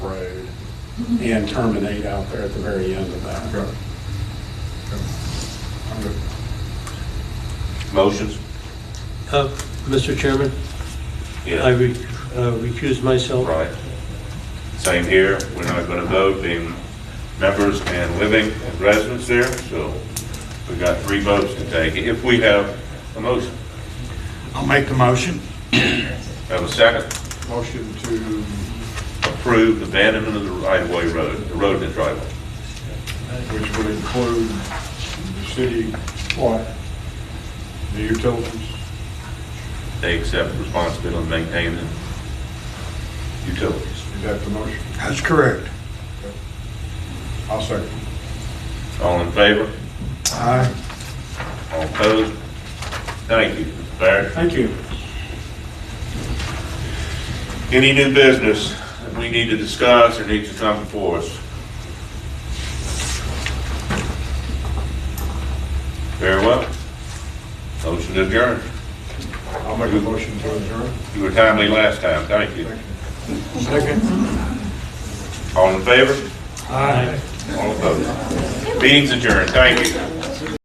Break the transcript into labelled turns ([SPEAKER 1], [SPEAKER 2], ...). [SPEAKER 1] and terminate out there at the very end of that.
[SPEAKER 2] Okay. Okay. I'm good.
[SPEAKER 3] Motions?
[SPEAKER 4] Uh, Mr. Chairman, I
[SPEAKER 3] Yeah,
[SPEAKER 4] re- uh, recuse myself.
[SPEAKER 3] right. Same here, we're not gonna vote, being members and living and residents there, so we got three votes to take, if we have a motion.
[SPEAKER 5] I'll make the motion.
[SPEAKER 3] Have a second?
[SPEAKER 2] Motion to,
[SPEAKER 3] Approve abandonment of the right-of-way road, the road and the driveway.
[SPEAKER 2] which would include the city,
[SPEAKER 1] What?
[SPEAKER 2] the utilities,
[SPEAKER 3] They accept responsibility and maintain the utilities.
[SPEAKER 2] is that the motion?
[SPEAKER 5] That's correct.
[SPEAKER 2] I'll second.
[SPEAKER 3] All in favor?
[SPEAKER 5] Aye.
[SPEAKER 3] All opposed? Thank you, Mr. Barrett.
[SPEAKER 1] Thank you.
[SPEAKER 3] Any new business that we need to discuss or needs to come before us? Very well. Motion to adjourn.
[SPEAKER 2] I'll make a motion to adjourn.
[SPEAKER 3] You were timely last time, thank you.
[SPEAKER 2] Second.
[SPEAKER 3] All in favor? All opposed? Meeting's adjourned, thank you.